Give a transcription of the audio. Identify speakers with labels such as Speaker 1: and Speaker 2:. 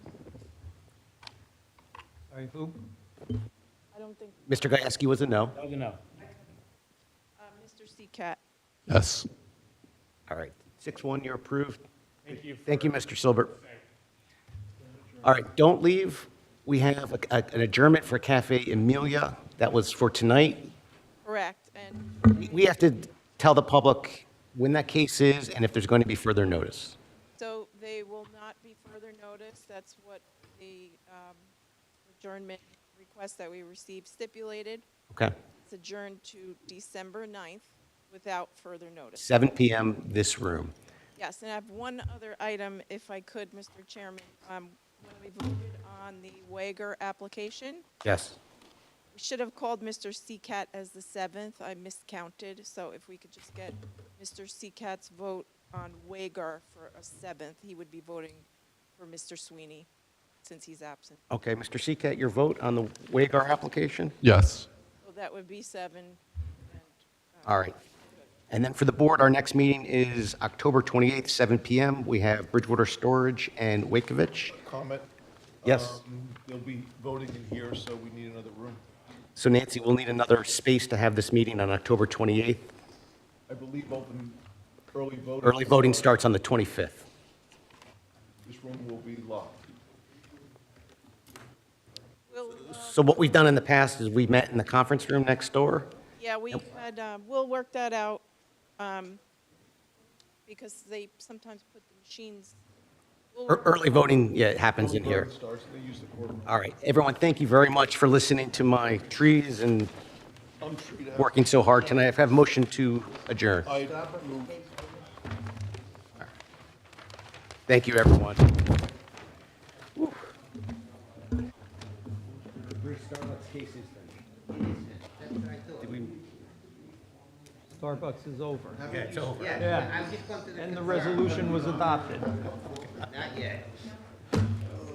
Speaker 1: Sorry, who?
Speaker 2: I don't think,
Speaker 3: Mr. Gajewski was a no.
Speaker 4: That was a no.
Speaker 2: uh, Mr. Seacat.
Speaker 5: Yes.
Speaker 3: All right, six one, you're approved.
Speaker 4: Thank you.
Speaker 3: Thank you, Mr. Silbert. All right, don't leave. We have a- a- an adjournment for Cafe Emilia. That was for tonight.
Speaker 2: Correct, and
Speaker 3: We- We have to tell the public when that case is and if there's going to be further notice.
Speaker 2: so they will not be further noticed. That's what the um, adjournment request that we received stipulated.
Speaker 3: Okay?
Speaker 2: It's adjourned to December 9th without further notice.
Speaker 3: Seven PM, this room.
Speaker 2: Yes, and I have one other item, if I could, Mr. Chairman. Um, When we voted on the Wager application,
Speaker 3: Yes.
Speaker 2: we should have called Mr. Seacat as the seventh. I miscounted, so if we could just get Mr. Seacat's vote on Wager for a seventh, he would be voting for Mr. Sweeney, since he's absent.
Speaker 3: Okay, Mr. Seacat, your vote on the Wagar application?
Speaker 5: Yes.
Speaker 2: So that would be seven. and, uh,
Speaker 3: All right. And then for the board, our next meeting is October 28th, 7 PM. We have Bridgewater Storage and Wakovich.
Speaker 6: comment?
Speaker 3: Yes.
Speaker 6: Um, They'll be voting in here, so we need another room.
Speaker 3: So Nancy, we'll need another space to have this meeting on October 28th.
Speaker 6: I believe open, early voting.
Speaker 3: Early voting starts on the 25th.
Speaker 6: This room will be locked.
Speaker 2: Will, uh,
Speaker 3: So what we've done in the past is we met in the conference room next door.
Speaker 2: Yeah, we had, um, we'll work that out, um, because they sometimes put the machines. we'll
Speaker 3: Ear-
Speaker 2: work-
Speaker 3: E-, Early voting, yeah, it happens
Speaker 6: Early
Speaker 3: in here. Uh,
Speaker 6: voting Starts, they use the courtroom.
Speaker 3: All right, everyone, thank you very much for listening to my trees and
Speaker 6: I'm sure you'd have-
Speaker 3: working so hard tonight. I have a motion to adjourn.
Speaker 6: I'd move.
Speaker 3: Thank you, everyone.
Speaker 1: Starbucks is over.
Speaker 7: Yeah,
Speaker 1: Yeah.
Speaker 7: I've just come to the.
Speaker 1: And the
Speaker 7: concern.
Speaker 1: resolution was adopted.
Speaker 7: Not yet.